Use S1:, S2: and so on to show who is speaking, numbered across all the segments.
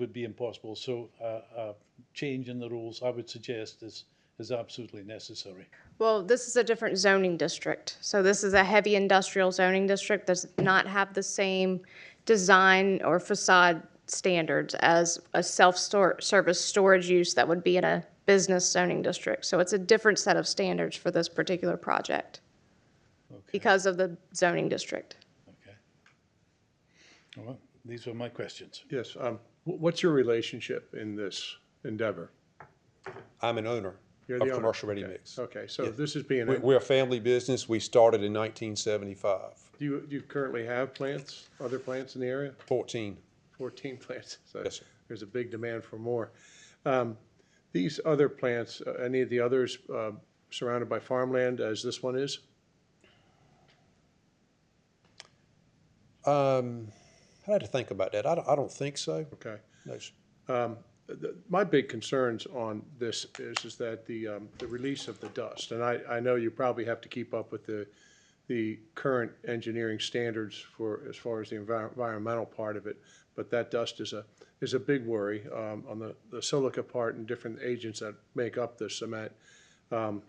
S1: would be impossible. So uh, a change in the rules, I would suggest, is, is absolutely necessary.
S2: Well, this is a different zoning district. So this is a heavy industrial zoning district, does not have the same design or facade standards as a self-service storage use that would be in a business zoning district. So it's a different set of standards for this particular project because of the zoning district.
S1: Okay. All right, these were my questions.
S3: Yes, um, wh- what's your relationship in this endeavor?
S4: I'm an owner
S3: You're
S4: of
S3: the owner.
S4: Commercial Ready
S3: Okay,
S4: Mix.
S3: Okay, so this is being,
S4: We-
S3: do
S4: We're a family business. We started in 1975,
S3: you, do you currently have plants, other plants in the area?
S4: 14.
S3: Fourteen plants, so
S4: Yes, sir.
S3: there's a big demand for more. Um, These other plants, uh, any of the others uh, surrounded by farmland as this one is?
S4: Um, I had to think about that. I don't, I don't think so.
S3: Okay.
S4: No, sir.
S3: the- my big concerns on this is, is that the, um, the release of the dust, and I, I know you probably have to keep up with the, the current engineering standards for, as far as the envir- environmental part of it, but that dust is a, is a big worry, um, on the, the silica part and different agents that make up the cement. Um,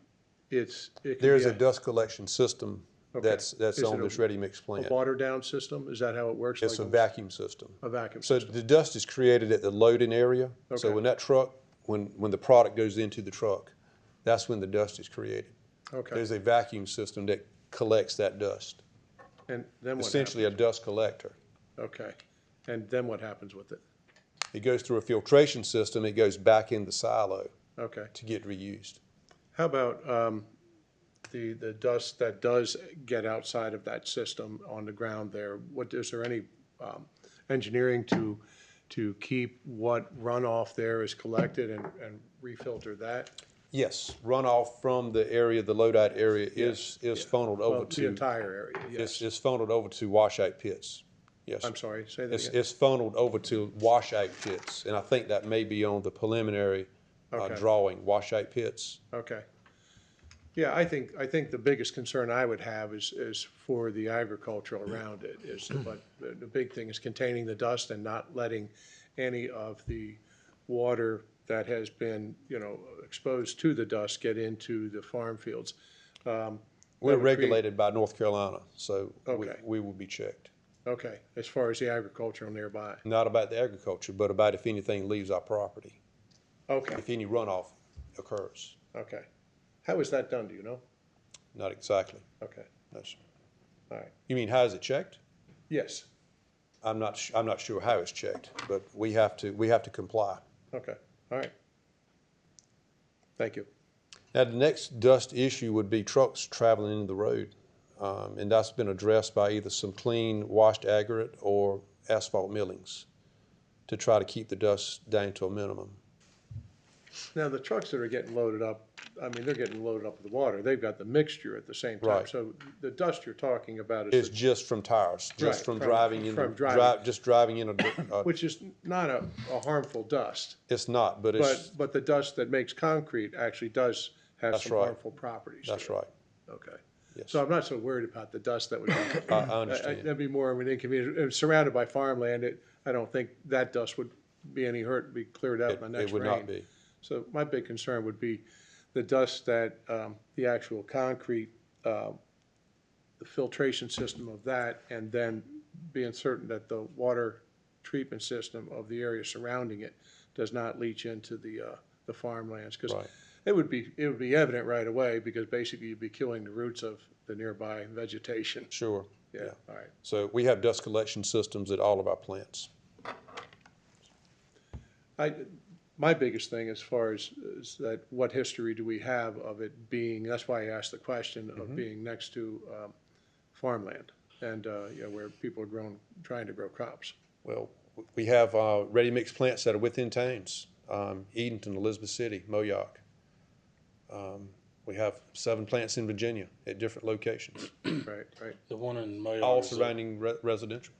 S3: It's, it can
S4: There's
S3: be
S4: a dust collection system that's, that's
S3: Is
S4: on
S3: it a-
S4: this Ready Mix
S3: a
S4: plant.
S3: water down system, is that how it works?
S4: It's a
S3: Like
S4: vacuum system.
S3: A vacuum.
S4: So the dust is created at the loading area. So
S3: Okay.
S4: when that truck, when, when the product goes into the truck, that's when the dust is created.
S3: Okay,
S4: There's a vacuum system that collects that dust,
S3: and then what happens?
S4: essentially a dust collector.
S3: Okay, and then what happens with it?
S4: It goes through a filtration system, it goes back in the silo
S3: Okay.
S4: to get reused.
S3: How about um, the, the dust that does get outside of that system on the ground there? What, is there any um, engineering to, to keep what runoff there is collected and, and refilter that?
S4: Yes, runoff from the area, the lowdite area is, is funneled
S3: Well,
S4: over
S3: The
S4: to,
S3: entire area, yes.
S4: it's, it's funneled over to washout pits. Yes.
S3: I'm sorry, say that
S4: It's,
S3: again.
S4: it's funneled over to washout pits, and I think that may be on the preliminary uh,
S3: Okay.
S4: drawing, washout pits.
S3: Okay. Yeah, I think, I think the biggest concern I would have is, is for the agriculture around it is, but the, the big thing is containing the dust and not letting any of the water that has been, you know, exposed to the dust get into the farm fields.
S4: We're
S3: would create-
S4: regulated by North Carolina, so we,
S3: Okay.
S4: we will be checked.
S3: Okay, as far as the agricultural nearby.
S4: Not about the agriculture, but about if anything leaves our property,
S3: Okay,
S4: if any runoff occurs.
S3: okay. How is that done, do you know?
S4: Not exactly.
S3: Okay,
S4: No, sir.
S3: all right.
S4: You mean how is it checked?
S3: Yes,
S4: I'm not, su- I'm not sure how it's checked, but we have to, we have to comply.
S3: okay, all right. Thank you.
S4: Now, the next dust issue would be trucks traveling into the road. Um, and that's been addressed by either some clean washed aggregate or asphalt millings to try to keep the dust down to a minimum.
S3: Now, the trucks that are getting loaded up, I mean, they're getting loaded up with water. They've got the mixture at the same time.
S4: Right.
S3: So the dust you're talking about is,
S4: It's just from tires,
S3: Right,
S4: just from
S3: from-
S4: driving in,
S3: from driving.
S4: drive, just driving in a, uh,
S3: which is not a, a harmful dust,
S4: it's not, but
S3: but,
S4: it's,
S3: but the dust that makes concrete actually does have
S4: That's
S3: some
S4: right.
S3: harmful properties. to
S4: that's
S3: it.
S4: right.
S3: Okay.
S4: Yes.
S3: So I'm not so worried about the dust that would be.
S4: I, I understand.
S3: That'd be more of an inconvenience. If Surrounded by farmland, it, I don't think that dust would be any hurt, be cleared out
S4: It
S3: by
S4: it
S3: next rain.
S4: would not be.
S3: So my big concern would be the dust that, um, the actual concrete, uh, the filtration system of that, and then being certain that the water treatment system of the area surrounding it does not leach into the, uh, the farmlands. Because
S4: Right.
S3: it would be, it would be evident right away, because basically you'd be killing the roots of the nearby vegetation.
S4: Sure.
S3: Yeah, all right.
S4: So we have dust collection systems at all of our plants.
S3: I, my biggest thing as far as, is that what history do we have of it being, that's why I asked the question of being next to, um, farmland and, uh, you know, where people are growing, trying to grow crops.
S4: Well, w- we have uh, ready-mix plants that are within towns, um, Edenton, Elizabeth City, Moyoc. Um, We have seven plants in Virginia at different locations,
S3: Right, right.
S5: The one in Mayo.
S4: all surrounding re- residential.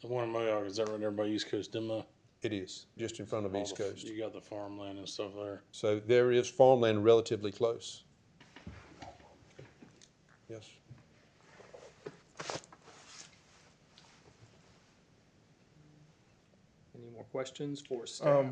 S5: The one in Mayo, is that right there by East Coast Demo?
S4: It is, just in front of East Coast.
S5: You got the farmland and stuff there.
S4: So there is farmland relatively close. Yes.
S6: Any more more questions for staff?